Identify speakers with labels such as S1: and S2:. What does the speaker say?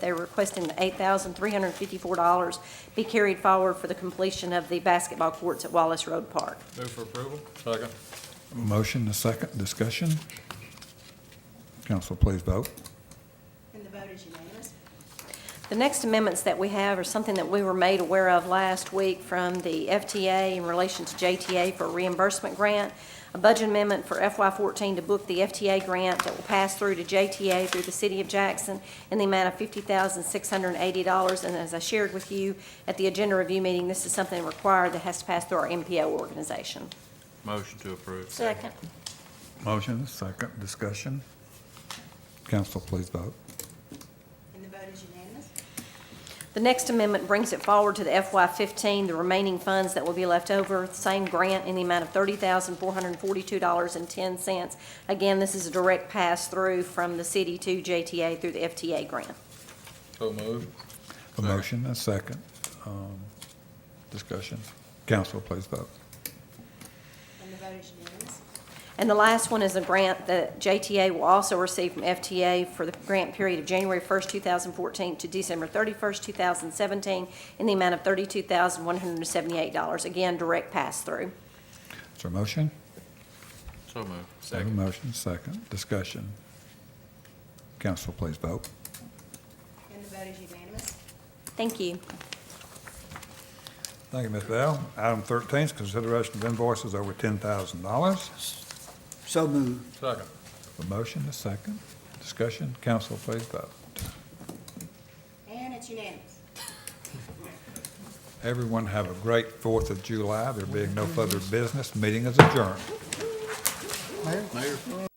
S1: They're requesting the $8,354 be carried forward for the completion of the basketball courts at Wallace Road Park.
S2: Move for approval. Second.
S3: Motion, a second, discussion. Council, please vote.
S4: And the vote is unanimous.
S1: The next amendments that we have are something that we were made aware of last week from the FTA in relation to JTA for reimbursement grant, a budget amendment for FY14 to book the FTA grant that will pass through to JTA through the city of Jackson in the amount of $50,680. And as I shared with you at the agenda review meeting, this is something required that has to pass through our MPO organization.
S2: Motion to approve.
S1: Second.
S3: Motion, a second, discussion. Council, please vote.
S4: And the vote is unanimous.
S1: The next amendment brings it forward to the FY15, the remaining funds that will be left over, same grant in the amount of $30,442.10. Again, this is a direct pass-through from the city to JTA through the FTA grant.
S2: So moved.
S3: A motion, a second, um, discussion. Council, please vote.
S4: And the vote is unanimous.
S1: And the last one is a grant that JTA will also receive from FTA for the grant period of January 1st, 2014 to December 31st, 2017, in the amount of $32,178. Again, direct pass-through.
S3: Is there a motion?
S2: So moved.
S3: Have a motion, second, discussion. Council, please vote.
S4: And the vote is unanimous.
S1: Thank you.
S3: Thank you, Ms. Bell. Item 13 is consideration of invoices over $10,000.
S5: So moved.
S2: Second.
S3: A motion, a second, discussion. Council, please vote.
S4: And it's unanimous.
S3: Everyone have a great Fourth of July. There being no further business, meeting is adjourned.
S2: Mayor?